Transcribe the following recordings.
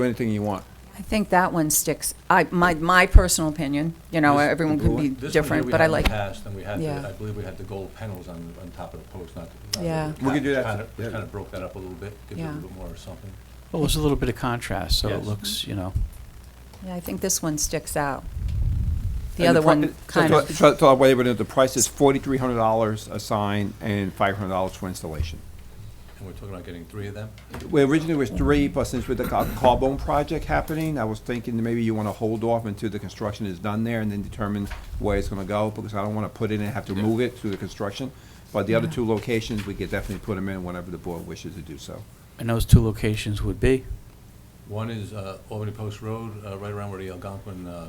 Do anything you want. I think that one sticks. I, my, my personal opinion, you know, This- everyone the could blue be one- this one here different, we but I had in the like, past, and we had, the- Yeah. I believe we had the gold panels on, on top of the post, not. not Yeah. the We could do top, that kinda- to- Which yeah. kind of broke that up a little bit, give it a Yeah. little bit more or something. Well, there's a little bit of contrast, so it Yes. looks, you know, yeah, I think this one sticks out. The And other pri- one so- kind so- of, So, so I'll waive it, the price is forty-three hundred dollars a sign and five hundred dollars for installation. And we're talking about getting three of them? Well, originally it was three, but since with the ca- Carbone project happening, I was thinking that maybe you want to hold off until the construction is done there and then determine where it's going to go, because I don't want to put it in and have to move it through the construction. But the other two locations, we could definitely put them in whenever the board wishes to do so. and those two locations would be, One is uh, Albany Post Road, uh, right around where the Algonquin uh,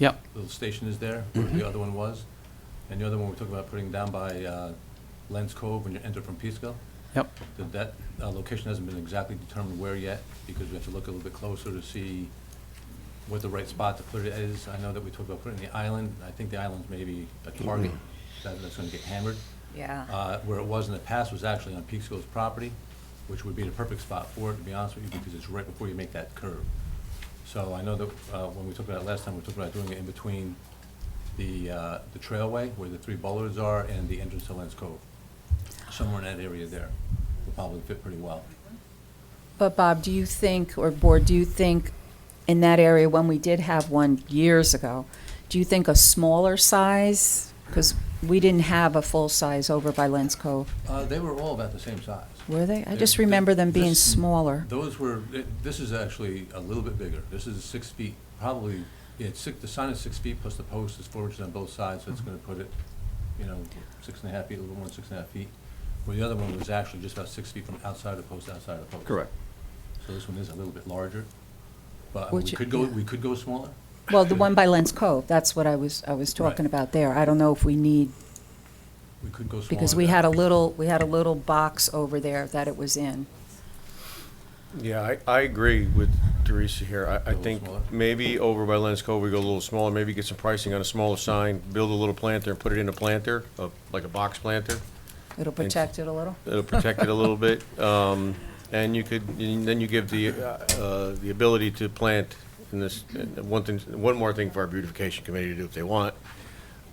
yep, little station is there, where Mm-hmm. the other one was. And the other one we're talking about putting down by uh, Lens Cove when you enter from Peekskill. yep, That that uh, location hasn't been exactly determined where yet, because we have to look a little bit closer to see what the right spot to put it is. I know that we talked about putting the island, I think the island's maybe a target, that- that's gonna get hammered. yeah, Uh, Where it was in the past was actually on Peekskill's property, which would be the perfect spot for it, to be honest with you, because it's right before you make that curve. So I know that uh, when we talked about it last time, we talked about doing it in between the, uh, the trailway, where the three bollards are, and the entrance to Lens Cove. Somewhere in that area there would probably fit pretty well. but Bob, do you think, or Board, do you think in that area, when we did have one years ago, do you think a smaller size? Because we didn't have a full size over by Lens Cove, Uh, They were all about the same size. were they? I They- just they- remember them being this- smaller. Those were, th- this is actually a little bit bigger. This is six feet, probably, yeah, it's six, the sign is six feet plus the post is four inches on both sides, so it's gonna put it, you know, six and a half feet, a little more than six and a half feet. Where the other one was actually just about six feet from outside the post, outside the post. So this one is a little bit larger, but we Which- could go, yeah. we could go smaller. Well, the one by Lens Cove, that's what I was, I was talking Right. about there. I don't know if we need We could go smaller. Because we than- had a little, we had a little box over there that it was in. Yeah, I, I agree with Teresa here. I, I little think smaller. maybe over by Lens Cove, we go a little smaller, maybe get some pricing on a smaller sign, build a little planter and put it in a planter, a- like a box planter. It'll protect it a little. It'll protect it a little bit. Um, and you could, and then you give the, uh, the ability to plant in this, and one thing, one more thing for our beautification committee to do if they want.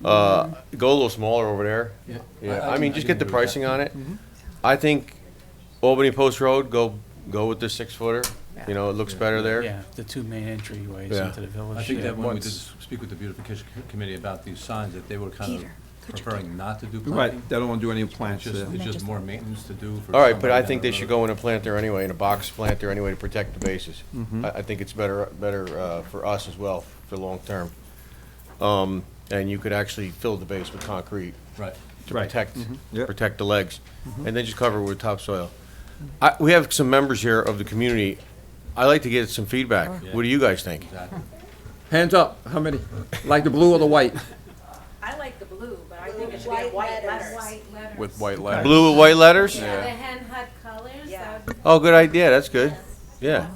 Uh, go a little smaller over there. Yeah. Yeah, I- I I can- mean, I just can get agree the with pricing that. Mm-hmm. on it. I think Albany Post Road, go, go with the six footer. You know, it looks better there. yeah, the two main entryways Yeah. into the village. I think yeah. that when we did once- speak with the beautification co- committee about these signs, that they were kind of Peter, could you preferring not to do planting. Right, they don't want to do any It's plants just, there. it's just more maintenance to do for. All right, but somebody I down think the they should road. go in a planter anyway, in a box planter anyway to protect the bases. I, I think it's better, better uh, for us as well, for long term. Um, And you could actually fill the base with concrete Right. to Right. protect, Yep. protect the legs. And then just cover it with topsoil. I, we have some members here of the community. I'd like to get some feedback. What do you guys think? Exactly. Hands up, how many? Like the blue or the white? I like the blue, but I think it should be white letters. With white letters. Blue with white letters? Yeah. The hen hut colors, Yeah. that would Oh, good idea, that's good. Yeah,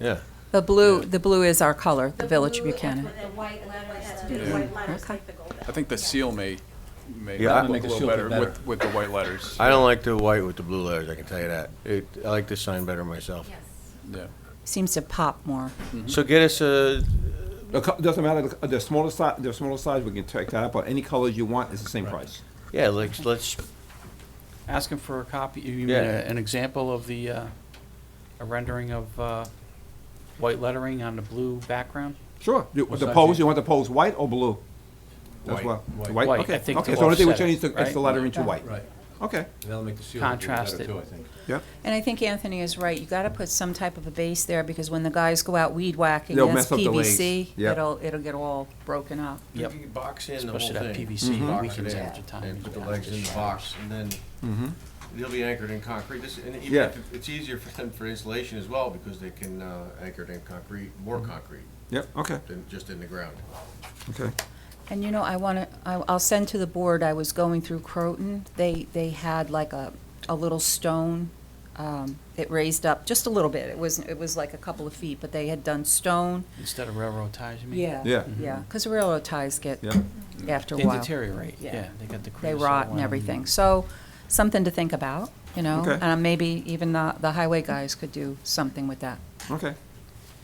yeah. The blue, the blue is our color, the Village of blue Buchanan. with the white letters. Do the white letters, like the gold. I think the seal may, may Yeah, I- look a Make the seal little look better better. with, with the white letters. I don't like the white with the blue letters, I can tell you that. It, I like this sign better myself. Yeah. Seems to pop more. So get us a, The co- Doesn't matter, the co- the smaller size, the smaller size, we can take that out, but any colors you want, it's the same price. yeah, let's, let's, Ask them for a copy, you mean Yeah. a- an example of the, uh, a rendering of uh, white lettering on the blue background? Sure. You- What The size pose, do you you- want the pose white or blue? That's White. what, White. white, White, okay, I think okay, to so the only thing we offset it, change is the- is right? the lettering to white. Right. Okay, That'll make the seal look a little Contrast better it. too, I think. yep. And I think Anthony is right. You gotta put some type of a base there because when the guys go out weed whacking, They'll that's mess up the legs. PVC. Yep. It'll, it'll get all broken up. you Yep. can box in the whole Especially thing. that PVC Box it weekends in, after time. And is put the what legs in the happens. box, and then they'll be anchored in concrete. This, and even Yeah. if it- it's easier for them for insulation as well, because they can, uh, anchor it in concrete, more concrete Yep, okay, than just in the ground. okay. And you know, I want to, I'll send to the board, I was going through Croton, they, they had like a, a little stone, um, it raised up just a little bit, it was, it was like a couple of feet, but they had done stone. Instead of railroad ties, you mean? Yeah. Yeah. Yeah, because railroad ties get, Yeah. after a They while. deteriorate, Yeah. yeah, they got the They creosote rot and one. everything. So, something to think about, you know? Okay. And maybe even the, the highway guys could do something with that. Okay,